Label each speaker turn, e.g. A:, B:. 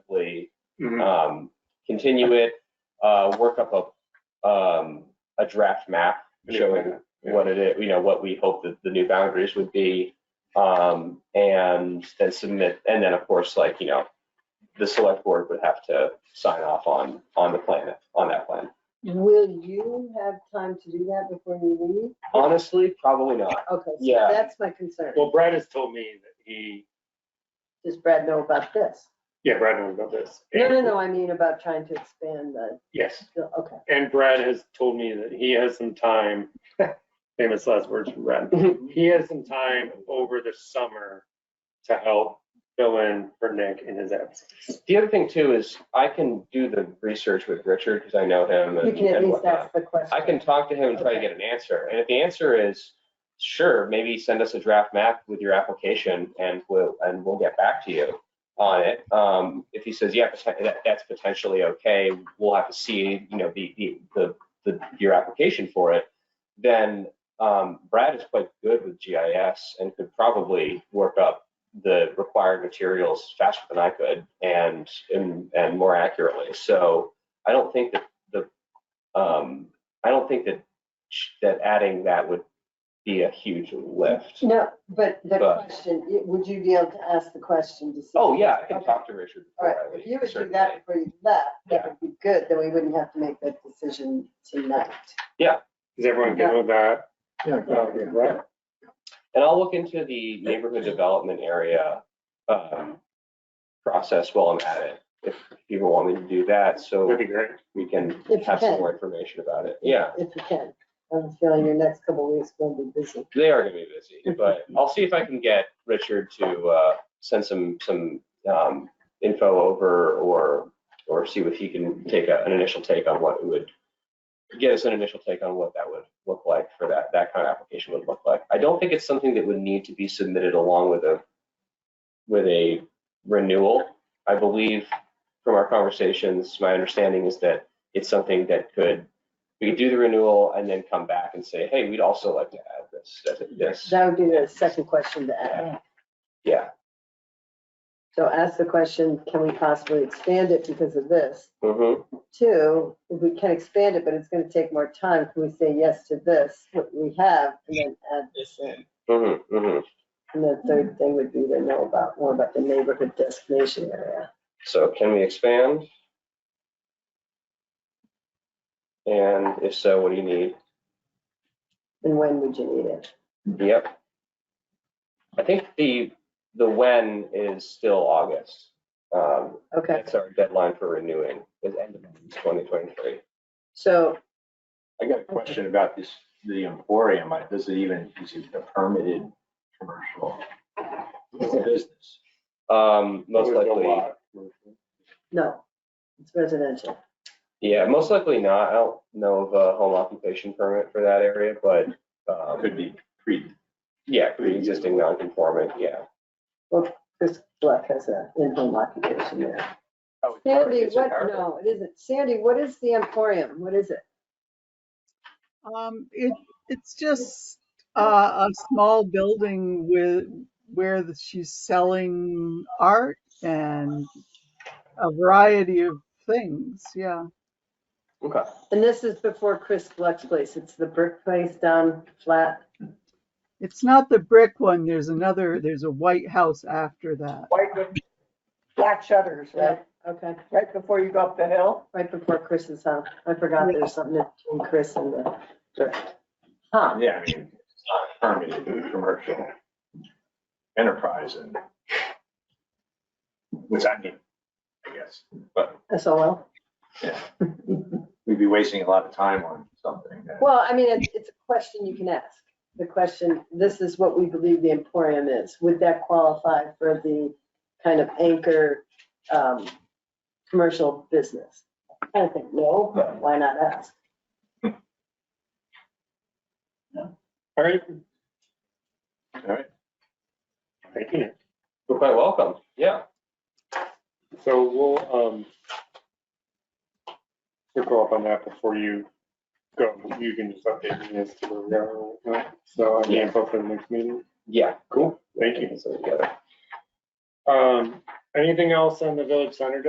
A: simply
B: Mhm.
A: um, continue it, uh, work up a, um, a draft map showing
B: Yeah.
A: what it is, you know, what we hope that the new boundaries would be. Um, and then submit, and then of course, like, you know, the select board would have to sign off on, on the plan, on that plan.
C: Will you have time to do that before you
A: Honestly, probably not.
C: leave? Okay, so
A: Yeah.
C: that's my concern.
B: Well, Brad has told me that he,
C: Does Brad know about this?
B: yeah, Brad knows about this.
C: No, no, no, I mean about trying to expand the,
B: Yes,
C: okay.
B: and Brad has told me that he has some time, famous last words from Brad. He has some time over the summer to help fill in for Nick in his absence.
A: The other thing too is I can do the research with Richard because I know him
C: You
A: and
C: can at
A: and
C: least
A: whatnot.
C: ask the question.
A: I can talk to him and try to
C: Okay.
A: get an answer. And if the answer is, sure, maybe send us a draft map with your application and we'll, and we'll get back to you on it. Um, if he says, yeah, poten- that, that's potentially okay, we'll have to see, you know, the, the, the, the, your application for it. Then, um, Brad is quite good with GIS and could probably work up the required materials faster than I could and, and, and more accurately. So I don't think that the, um, I don't think that, that adding that would be a huge lift.
C: No, but the
A: But-
C: question, y- would you be able to ask the question to see?
A: Oh, yeah, I can
C: Okay.
A: talk to Richard.
C: All
A: before
C: right,
A: I
C: if
A: leave,
C: you would do
A: certainly.
C: that before you left, that would be good, then we wouldn't have to make that decision tonight.
B: Is everyone good with that?
D: Yeah,
B: Uh, Brad?
A: And I'll look into the neighborhood development area um, process while I'm at it. If people want me to do that, so
B: That'd be great.
A: we can
C: you
A: have some
C: can.
A: more information about it. Yeah,
C: If you can. I have a feeling your next couple of weeks will be busy.
A: they are gonna be busy, but I'll see if I can get Richard to uh, send some, some um, info over or, or see if he can take a- an initial take on what it would, get us an initial take on what that would look like for that, that kind of application would look like. I don't think it's something that would need to be submitted along with a, with a renewal. I believe from our conversations, my understanding is that it's something that could, we could do the renewal and then come back and say, hey, we'd also like to add this, this,
C: That would be the second question to ask.
A: yeah.
C: So ask the question, can we possibly expand it because of this?
A: Mhm.
C: Two, if we can expand it, but it's gonna take more time, can we say yes to this, what we have, and then add this in?
A: Mhm. Mhm.
C: And the third thing would be to know about, more about the neighborhood destination area.
A: So can we expand? And if so, what do you need?
C: And when would you need it?
A: Yep. I think the, the when is still August. Um,
C: Okay,
A: That's our deadline for renewing, is end of 2023.
C: so,
E: I got a question about this, the emporium, Like, does it even, is it a permitted commercial business?
A: Um, Most
B: With a
A: likely,
B: lot.
C: no, it's residential.
A: yeah, most likely not. I don't know of a home occupation permit for that area, but um,
E: Could be pre,
A: yeah, pre-existing non-conforming, yeah.
C: Chris Black has a in-home occupation there. Sandy, what, no, it isn't. Sandy, what is the Emporium? What is it?
F: Um, it, it's just uh, a small building with, where the- she's selling art and a variety of things, yeah.
A: Okay.
C: And this is before Chris Black's place. It's the brick place down flat.
F: It's not the brick one, there's another, there's a white house after that.
G: white with black shutters, right?
C: Okay,
G: Right before you go up the hill.
C: right before Chris's house. I forgot there's something between Chris and the. Huh,
E: yeah, I mean, it's not a permitted commercial enterprise and which I mean, I guess, but
C: SOL.
E: we'd be wasting a lot of time on something that.
C: Well, I mean, it's, it's a question you can ask. The question, this is what we believe the Emporium is. Would that qualify for the kind of anchor, um, commercial business? I don't think no, but why not ask?
B: All right,
E: All right.
B: thank you.
A: You're quite welcome. Yeah.
B: So we'll, um, we'll go up on that before you go. You can just update me as to where we are. right now. So I'll be info for the next meeting.
A: Yeah.
B: Cool, thank you.
A: So together.
B: Um, Anything else on the village center